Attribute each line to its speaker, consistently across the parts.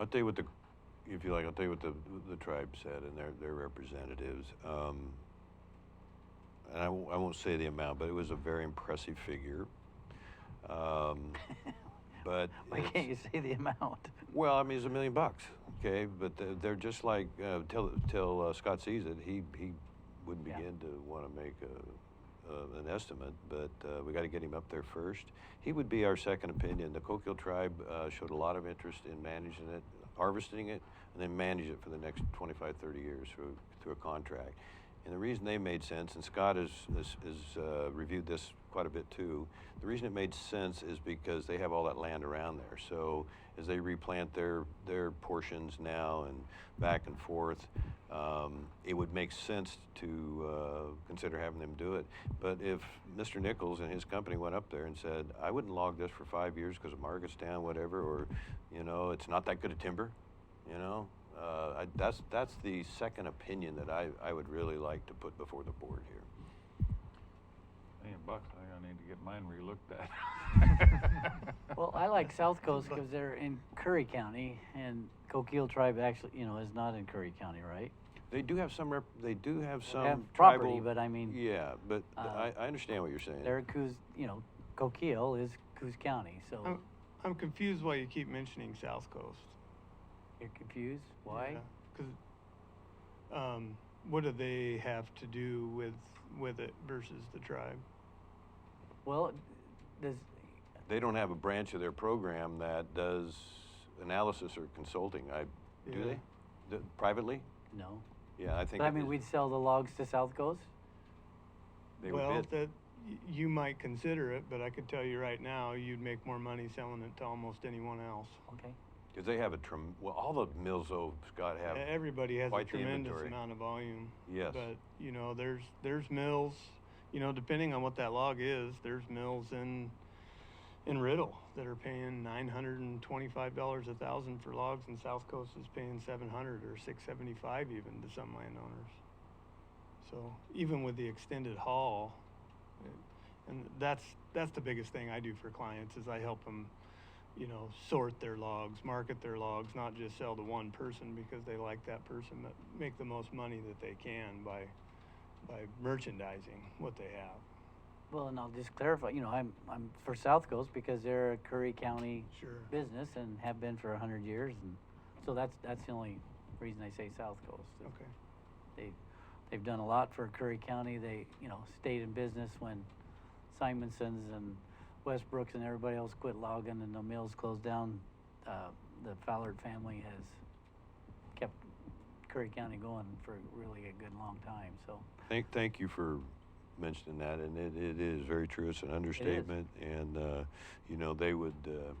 Speaker 1: I'll tell you what the, if you like, I'll tell you what the, the tribe said and their, their representatives. Um, and I won't, I won't say the amount, but it was a very impressive figure. Um, but
Speaker 2: Why
Speaker 1: it's-
Speaker 2: can't you say the amount?
Speaker 1: well, I mean, it's a million bucks, okay? But they're, they're just like uh, till till uh, Scott sees it, he he wouldn't
Speaker 2: Yeah.
Speaker 1: begin to want to make a, uh, an estimate. But uh, we got to get him up there first. He would be our second opinion. The Coquille tribe uh, showed a lot of interest in managing it, harvesting it, and then manage it for the next 25, 30 years through through a contract. And the reason they made sense, and Scott has, has, has uh, reviewed this quite a bit too, the reason it made sense is because they have all that land around there. So as they replant their, their portions now and back and forth, um, it would make sense to uh, consider having them do it. But if Mr. Nichols and his company went up there and said, I wouldn't log this for five years because the market's down, whatever, or, you know, it's not that good of timber, you know, uh, I, that's that's the second opinion that I, I would really like to put before the board here.
Speaker 3: Million bucks, I gonna need to get mine relooked at.
Speaker 2: Well, I like South Coast because they're in Curry County, and Coquille tribe actually, you know, is not in Curry County, right?
Speaker 1: They do have some rep, they do have some
Speaker 2: have
Speaker 1: tribal,
Speaker 2: property, but I mean,
Speaker 1: yeah, but
Speaker 2: uh,
Speaker 1: I, I understand what you're saying.
Speaker 2: They're Coos, you know, Coquille is Coos County, so
Speaker 1: Oh.
Speaker 4: I'm, I'm confused why you keep mentioning South Coast.
Speaker 2: you're confused? Why?
Speaker 4: Because, um, what do they have to do with, with it versus the tribe?
Speaker 2: Well, does,
Speaker 1: they don't have a branch of their program that does analysis or consulting. I do
Speaker 4: Yeah.
Speaker 1: they D- privately?
Speaker 2: no.
Speaker 1: Yeah, I think.
Speaker 2: But I
Speaker 1: it
Speaker 2: mean,
Speaker 1: is-
Speaker 2: we'd sell the logs to South Coast?
Speaker 1: they would
Speaker 4: Well,
Speaker 1: bid.
Speaker 4: that, y- you might consider it, but I could tell you right now, you'd make more money selling it to almost anyone else.
Speaker 2: Okay.
Speaker 1: 'Cause they have a trem. Well, all the mills though Scott have.
Speaker 4: E- Everybody has a
Speaker 1: quite the
Speaker 4: tremendous
Speaker 1: inventory.
Speaker 4: amount of volume.
Speaker 1: Yes.
Speaker 4: But, you know, there's, there's mills, you know, depending on what that log is, there's mills in, in Riddle that are paying nine hundred and twenty-five dollars a thousand for logs and South Coast is paying seven hundred or six seventy-five even to some landowners. So even with the extended haul, it- and that's, that's the biggest thing I do for clients is I help them you know, sort their logs, market their logs, not just sell to one person because they like that person, but make the most money that they can by by merchandising what they have.
Speaker 2: Well, and I'll just clarify, you know, I'm, I'm for South Coast because they're a Curry County
Speaker 4: Sure.
Speaker 2: business and have been for a hundred years, and so that's, that's the only reason I say South Coast.
Speaker 4: Okay.
Speaker 2: They, they've done a lot for Curry County, they, you know, stayed in business when Simonson's and Westbrook's and everybody else quit logging and the mills closed down. Uh, the Fallard family has kept Curry County going for really a good long time, so.
Speaker 1: Thank, thank you for mentioning that, and it, it is very true. It's an understatement, and uh, you know they would, uh,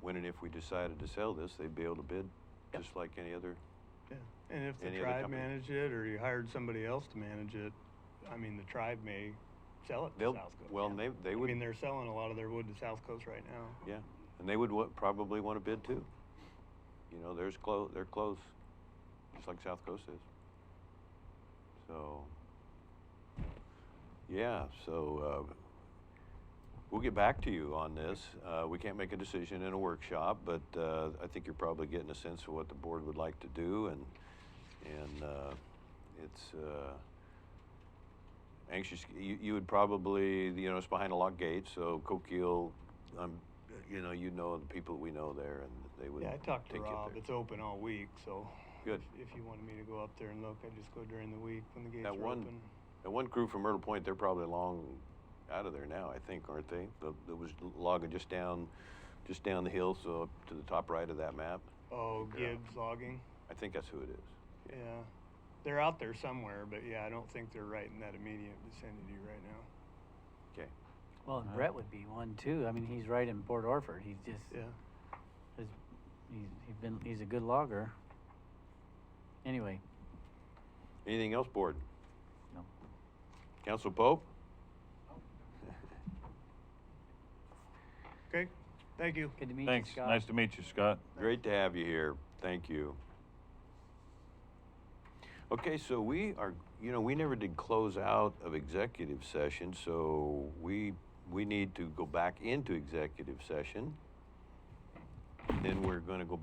Speaker 1: when and if we decided to sell this, they'd be able to bid
Speaker 2: Yep.
Speaker 1: just like any other.
Speaker 4: Yeah. And if the
Speaker 1: Any other
Speaker 4: tribe
Speaker 1: company?
Speaker 4: managed it or you hired somebody else to manage it, I mean the tribe may sell it
Speaker 1: They'll
Speaker 4: to South Coast.
Speaker 1: well, they they
Speaker 4: I
Speaker 1: would,
Speaker 4: mean they're selling a lot of their wood to South Coast right now.
Speaker 1: yeah, and they would wa- probably want to bid too. You know, there's close, they're close, just like South Coast is. So, yeah, so uh, We'll get back to you on this. Uh, we can't make a decision in a workshop, but uh, I think you're probably getting a sense of what the board would like to do, and and uh, it's uh, anxious. You, you would probably, you know, it's behind a locked gate, so Coquille, um, you know, you know the people we know there, and they would.
Speaker 4: Yeah, I talked to
Speaker 1: take you up
Speaker 4: Rob.
Speaker 1: there.
Speaker 4: It's open all week, so
Speaker 1: Good.
Speaker 4: If, if you wanted me to go up there and look, I'd just go during the week when the gates
Speaker 1: That
Speaker 4: were
Speaker 1: one-
Speaker 4: open.
Speaker 1: And one crew from Myrtle Point, they're probably long out of there now, I think, aren't they? The, that was logging just down, just down the hill, so up to the top right of that map.
Speaker 4: Oh,
Speaker 1: Look it up.
Speaker 4: Gibbs logging.
Speaker 1: I think that's who it is.
Speaker 4: Yeah, they're out there somewhere, but yeah, I don't think they're right in that immediate vicinity right now.
Speaker 1: Okay.
Speaker 2: Well, and
Speaker 3: Wow.
Speaker 2: Brett would be one too. I mean, he's right in Port Orford. He's just
Speaker 4: Yeah.
Speaker 2: he's, he's, he's been he's a good logger. Anyway,
Speaker 1: Anything else, board?
Speaker 2: no.
Speaker 1: Council Pope?
Speaker 4: Okay. Thank you.
Speaker 2: Good to meet
Speaker 3: Thanks,
Speaker 2: you, Scott.
Speaker 3: nice to meet you, Scott.
Speaker 1: Great to have you here. Thank you. Okay, so we are, you know, we never did close out of executive session, so we, we need to go back into executive session. Then we're gonna go